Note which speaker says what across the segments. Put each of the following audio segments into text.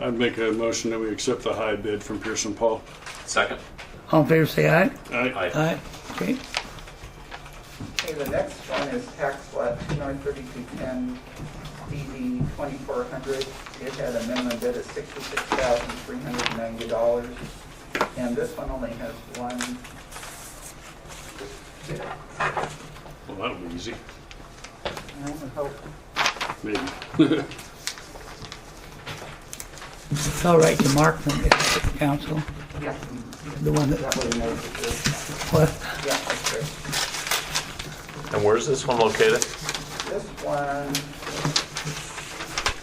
Speaker 1: I'd make a motion that we accept the high bid from Pearson Paul.
Speaker 2: Second.
Speaker 3: All in favor, say aye.
Speaker 1: I,
Speaker 2: Aye.
Speaker 3: Aye. Okay.
Speaker 4: Okay, the next one is tax lot 23210, DD 2400. It had a minimum bid of $66,390, and this one only has one bid.
Speaker 1: well, that'll be easy,
Speaker 4: And I would hope
Speaker 1: maybe.
Speaker 3: It's all right to mark them if the council,
Speaker 4: Yeah,
Speaker 3: the one that,
Speaker 4: that way we know what it is.
Speaker 3: what,
Speaker 4: Yeah, that's great.
Speaker 2: And where's this one located?
Speaker 4: This one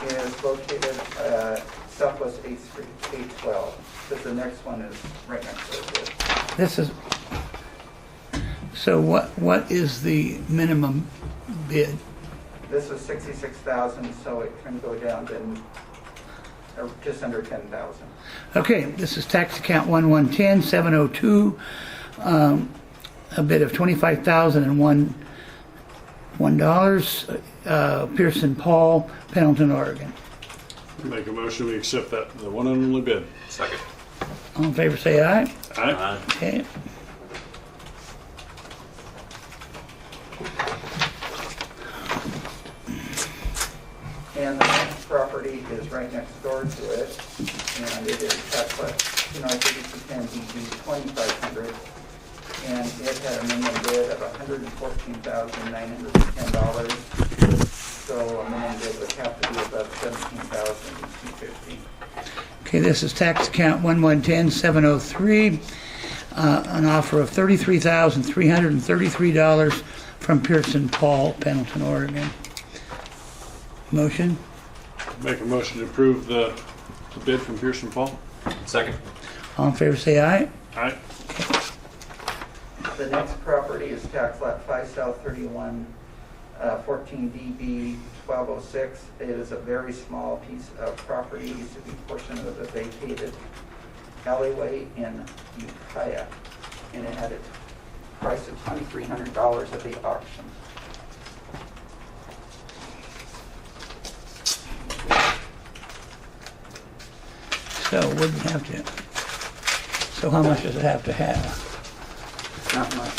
Speaker 4: is located uh, Southwest 8th Street, 812, because the next one is right next to it.
Speaker 3: this is, so what, what is the minimum bid?
Speaker 4: This was 66,000, so it can go down to uh, just under 10,000.
Speaker 3: Okay, this is tax account 1110, 702, um, a bid of $25,001, $1, uh, Pearson Paul, Pendleton, Oregon.
Speaker 1: Make a motion, we accept that, the one and only bid.
Speaker 2: Second.
Speaker 3: All in favor, say aye.
Speaker 1: Aye.
Speaker 2: Aye.
Speaker 3: Okay.
Speaker 4: And the next property is right next door to it, and it is Tesla, you know, I think it's a 10 DB 2500. And it had a minimum bid of $114,910, so a minimum bid would have to be above 17,250.
Speaker 3: Okay, this is tax account 1110703, uh, an offer of $33,333 from Pearson Paul, Pendleton, Oregon. Motion?
Speaker 1: Make a motion to approve the the bid from Pearson Paul.
Speaker 2: Second.
Speaker 3: All in favor, say aye.
Speaker 1: Aye.
Speaker 4: The next property is tax lot 5 South 31, uh, 14 DB 1206. It is a very small piece of property, It used to be a portion of the vacated alleyway in Ukiah, and it had a price of $2,300 at the auction.
Speaker 3: So wouldn't have to. So how much does it have to have?
Speaker 4: Not much,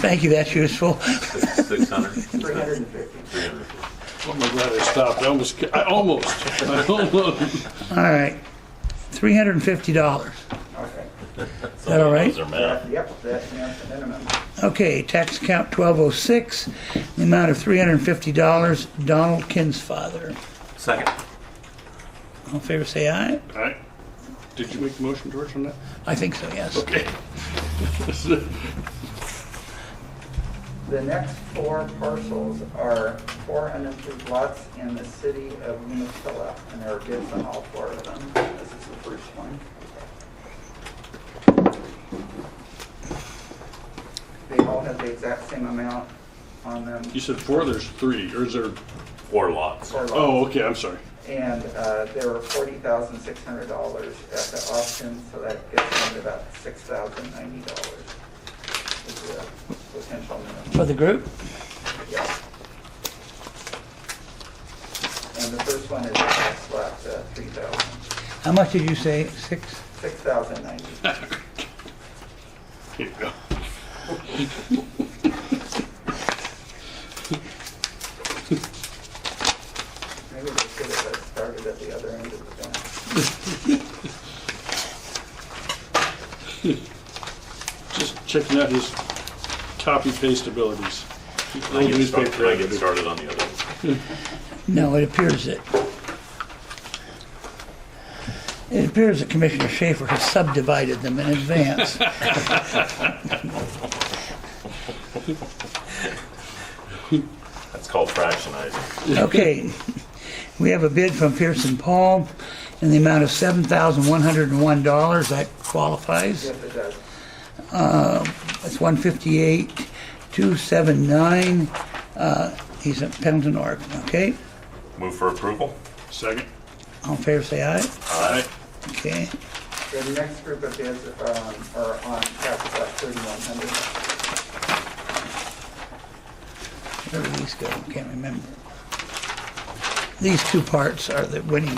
Speaker 3: Thank you, that's useful.
Speaker 2: Six hundred.
Speaker 4: 350.
Speaker 1: Oh, I'm glad I stopped, I almost, ca- I almost, I almost.
Speaker 3: All right, $350.
Speaker 4: Okay.
Speaker 3: that all right?
Speaker 4: That- Yep, that- that's the minimum.
Speaker 3: Okay, tax account 1206, the amount of $350, Donald Kinsfather.
Speaker 2: Second.
Speaker 3: All in favor, say aye.
Speaker 1: Aye. Did you make the motion, George, on that?
Speaker 3: I think so, yes.
Speaker 1: Okay.
Speaker 4: The next four parcels are four unapproved lots in the city of Umatilla, and there are bids on all four of them. This is the first one. They all have the exact same amount on them,
Speaker 1: You said four, there's three, or is there,
Speaker 2: Four lots.
Speaker 4: four lots.
Speaker 1: oh, okay, I'm sorry.
Speaker 4: And uh, they were forty thousand six hundred dollars at the auction, so that gets them to about six thousand ninety dollars. Is the potential minimum.
Speaker 3: For the group?
Speaker 4: Yeah. And the first one is tax lot uh, 3,000,
Speaker 3: How much did you say? Six?
Speaker 4: 6,090.
Speaker 1: Here you go.
Speaker 4: Maybe they should have uh, started at the other end of the bench.
Speaker 1: Just checking out his copy paste abilities.
Speaker 2: I
Speaker 1: Old
Speaker 2: get started-
Speaker 1: newspaper
Speaker 2: I get
Speaker 1: editor.
Speaker 2: started on the other one.
Speaker 3: No, it appears that. It appears that Commissioner Schaefer has subdivided them in advance.
Speaker 2: That's called fractionizing.
Speaker 3: Okay, we have a bid from Pearson Paul in the amount of $7,101. That qualifies.
Speaker 4: Yes, it does.
Speaker 3: That's 158,279. Uh, He's at Pendleton, Oregon, okay?
Speaker 2: Move for approval?
Speaker 1: Second.
Speaker 3: All in favor, say aye.
Speaker 1: Aye.
Speaker 3: Okay.
Speaker 4: The next group of bids um, are on tax lot 3,100.
Speaker 3: Where did these go? Can't remember. These two parts are the winning